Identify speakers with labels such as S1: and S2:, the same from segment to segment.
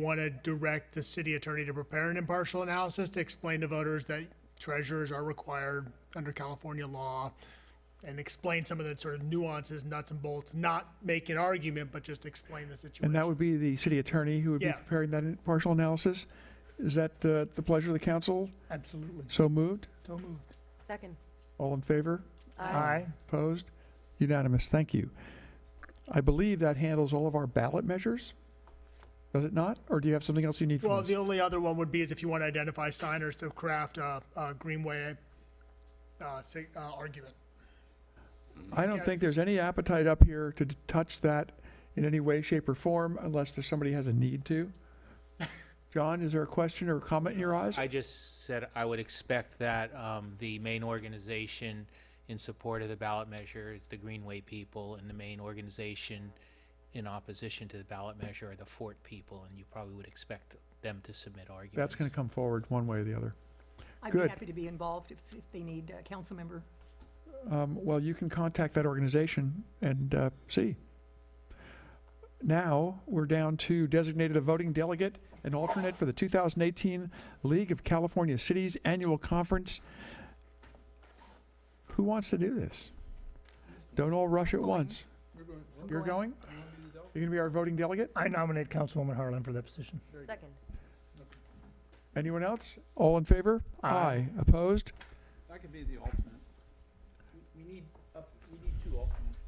S1: want to direct the city attorney to prepare an impartial analysis to explain to voters that treasurers are required under California law and explain some of the sort of nuances, nuts and bolts, not make an argument, but just explain the
S2: And that
S1: situation.
S2: would be the city attorney who would be
S1: Yeah.
S2: preparing that partial analysis? Is that uh, the pleasure of the council?
S1: Absolutely.
S2: So moved?
S1: So moved.
S3: Second.
S2: All in favor?
S3: Aye.
S2: Opposed? Unanimous, thank you. I believe that handles all of our ballot measures? Does it not? Or do you have something else you need from
S1: Well,
S2: us?
S1: the only other one would be is if you want to identify signers to craft a, a Greenway, uh, sig- uh, argument.
S2: I don't think
S1: Yes.
S2: there's any appetite up here to d- touch that in any way, shape, or form unless there's somebody has a need to. John, is there a question or comment in your eyes?
S4: I just said I would expect that um, the main organization in support of the ballot measure is the Greenway people, and the main organization in opposition to the ballot measure are the Fort people, and you probably would expect them to submit arguments.
S2: That's going to come forward one way or the other.
S5: I'd be
S2: Good.
S5: happy to be involved if, if they need a council member.
S2: Um, well, you can contact that organization and uh, see. Now we're down to designated a voting delegate and alternate for the 2018 League of California Cities Annual Conference. Who wants to do this? Don't all rush at
S5: I'm going.
S2: once.
S5: I'm
S2: You're going? You're going to be our voting delegate?
S6: I nominate Councilwoman Harlan for that position.
S3: Second.
S2: Anyone else? All in favor?
S6: Aye.
S2: Opposed?
S7: I could be the alternate. We- We need, up- we need two alternates,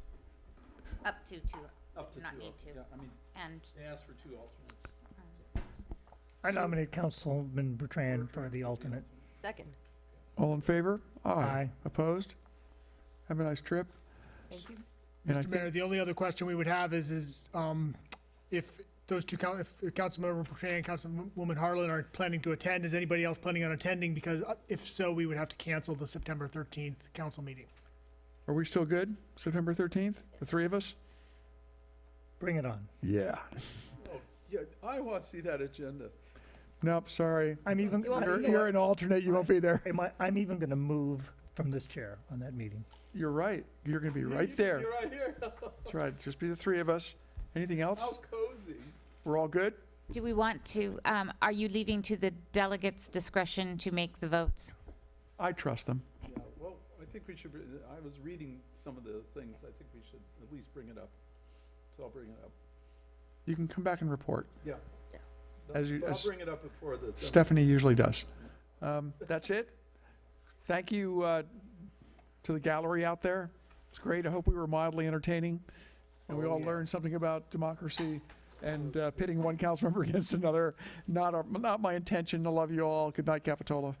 S8: Up to two,
S7: up to two.
S8: Not need
S7: al-
S8: two.
S7: Yeah, I mean,
S8: and
S7: they asked for two alternates.
S6: I nominate Councilman Bertrand for the alternate.
S3: Second.
S2: All in favor?
S6: Aye.
S2: Opposed? Have a nice trip.
S3: Thank you.
S2: And I
S1: Mr.
S2: think-
S1: Mayor, the only other question we would have is, is, um, if those two, coun- if Councilmember Bertrand and Councilwoman Harlan are planning to attend, is anybody else planning on attending? Because uh, if so, we would have to cancel the September thirteenth council meeting.
S2: Are we still good? September 13th? The three of us?
S6: Bring it on.
S2: Yeah.
S7: Oh, Yeah, I want to see that agenda.
S2: Nope, sorry.
S6: I'm even,
S3: You won't be
S2: You're,
S3: here.
S2: you're an alternate, you won't be there.
S6: I'm, I'm even gonna move from this chair on that meeting.
S2: You're right. You're gonna be right
S7: You're
S2: there.
S7: right here.
S2: That's right, just be the three of us. Anything else?
S7: How cozy.
S2: We're all good?
S8: Do we want to, um, are you leaving to the delegates' discretion to make the votes?
S2: I trust them.
S7: Yeah, well, I think we should, br- I was reading some of the things. I think we should at least bring it up. So I'll bring it up.
S2: You can come back and report.
S7: Yeah.
S2: As you-
S7: But I'll
S2: as-
S7: bring it up before the. the-
S2: Stephanie usually does. Um, that's it. Thank you, uh, to the gallery out there. It's great. I hope we were mildly entertaining. And we all learned something about democracy and, uh, pitting one council member against another. Not, our- not my intention. I love you all. Good night, Capitola.